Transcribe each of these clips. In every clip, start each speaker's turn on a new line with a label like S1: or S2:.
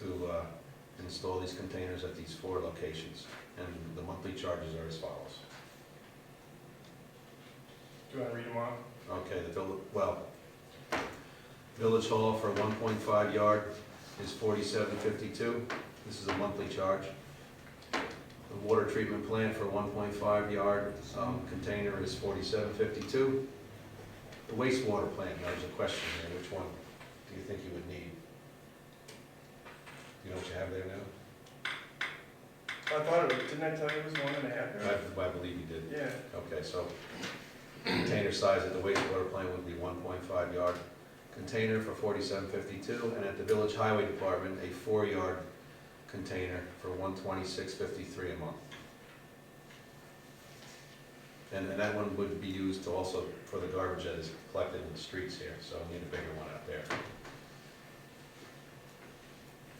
S1: to uh, install these containers at these four locations, and the monthly charges are as follows.
S2: Do you want to read them off?
S1: Okay, the, vill- well, Village Hall for one point five yard is forty-seven fifty-two, this is a monthly charge. The water treatment plant for one point five yard, um, container is forty-seven fifty-two. The wastewater plant, there was a question there, which one do you think you would need? You know what you have there now?
S2: I thought it was, didn't I tell you it was one and a half?
S1: I, I believe you did.
S2: Yeah,
S1: Okay, so container size at the wastewater plant would be one point five yard container for forty-seven fifty-two, and at the village highway department, a four-yard container for one twenty-six fifty-three a month. And, and that one would be used to also for the garbage that is collected in the streets here, so I need a bigger one out there.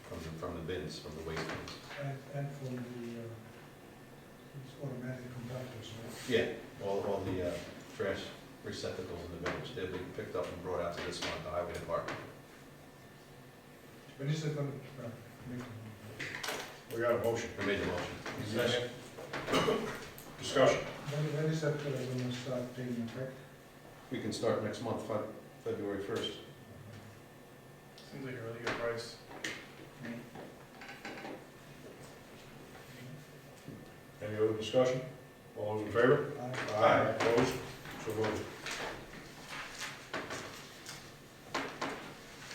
S1: From the, from the bins, from the waste bins.
S3: And, and from the, uh, it's automatic conductors, right?
S1: Yeah, all, all the uh, trash receptacles in the village, they'll be picked up and brought out to this one, the highway department.
S3: When is it gonna, uh, make them?
S4: We got a motion.
S1: I made the motion.
S4: Second. Discussion.
S3: When, when is that uh, gonna start taking effect?
S1: We can start next month, Fe- February first.
S2: seems like a really good price.
S4: Any other discussion? All those in favor?
S3: I-
S4: Opposed? So voted.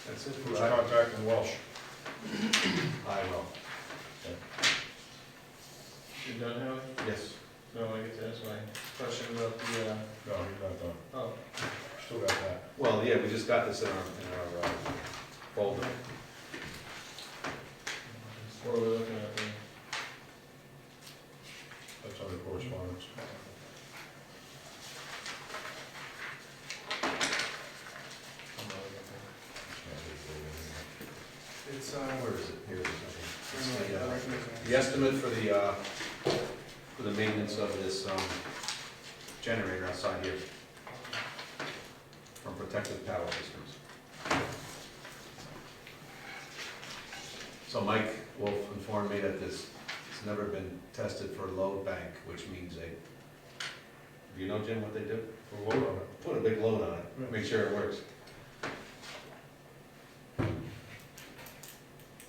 S1: That's it
S4: Who's
S1: for I.
S4: contacting Welsh?
S1: I will,
S2: You done, Howie?
S1: yes.
S2: No, I get to ask my question about the, uh,
S4: No, he's not done.
S2: oh.
S4: Still got that.
S1: Well, yeah, we just got this in our, in our uh, folder.
S2: What are we looking at there?
S4: That's under correspondence.
S2: It's, uh,
S1: Where is it? Here it is.
S2: it's
S1: okay. It's
S2: like
S1: the,
S2: a
S1: uh,
S2: recommendation.
S1: The estimate for the, uh, for the maintenance of this um, generator outside here from Protective Power Systems. So Mike Wolf informed me that this, it's never been tested for load bank, which means they, do you know, Jim, what they do?
S4: We'll vote on it.
S1: Put a big load on it, make sure it works.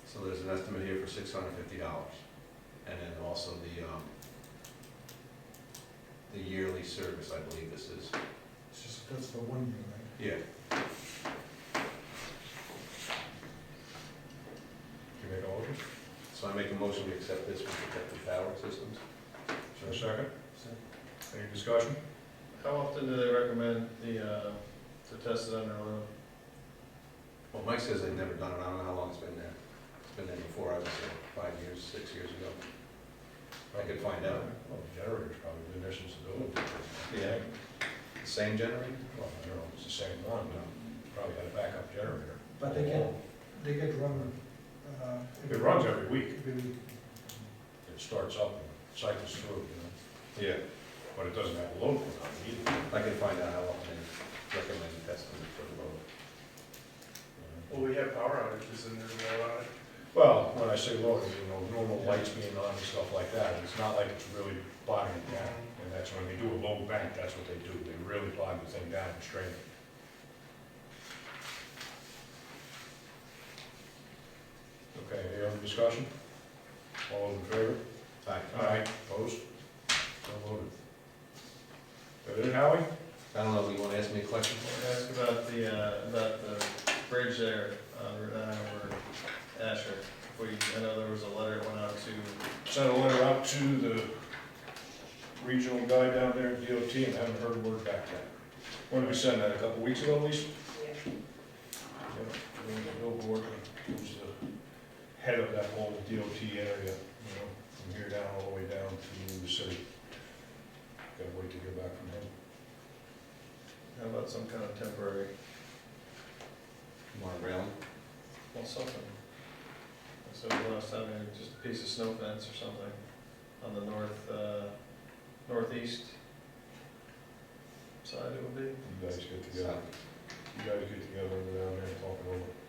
S1: So there's an estimate here for six hundred fifty dollars. And then also the, um, the yearly service, I believe this is.
S3: It's just, that's for one year, right?
S1: Yeah.
S4: Can you make all of them?
S1: So I make a motion to accept this from Protective Power Systems.
S4: Is there a second?
S3: So,
S4: Any discussion?
S2: How often do they recommend the, uh, to test it under oil?
S1: Well, Mike says they've never done it, I don't know how long it's been there. It's been there before, I was there five years, six years ago. I could find out.
S4: Well, the generator's probably been there since the building.
S1: Yeah. Same generator?
S4: Well, I don't know, if it's the same one, but probably had a backup generator.
S3: But they get, they get run, uh.
S4: It runs every week.
S3: Every week.
S4: It starts up and cycles through, you know,
S1: Yeah.
S4: but it doesn't have a load on it either.
S1: I can find out how often they recommend testing it for the load.
S2: Well, we have power outages and there's a lot of,
S4: Well, when I say local, you know, normal lights being on and stuff like that, it's not like it's really bogging it down. And that's when they do a low bank, that's what they do, they really bog the thing down and strain it. Okay, any other discussion? All those in favor?
S1: Aye.
S4: Aye. Opposed? So voted. That it, Howie?
S1: I don't know, you wanna ask me a question?
S5: Can I ask about the, uh, about the bridge there uh, on Route 9 over Asher? We, I know there was a letter that went out to,
S4: Sent a letter out to the regional guy down there at DOT and haven't heard a word back yet. When did we send that, a couple weeks ago at least? Yeah, and the Billboard, who's the head of that whole DOT area, you know, from here down all the way down to the city. Gotta wait to hear back from him.
S5: how about some kind of temporary,
S1: More railing?
S5: well, something. I said the last time, maybe just a piece of snow fence or something on the north, uh, northeast side it would be.
S4: You guys get together, you guys get together and go down there and talk it over.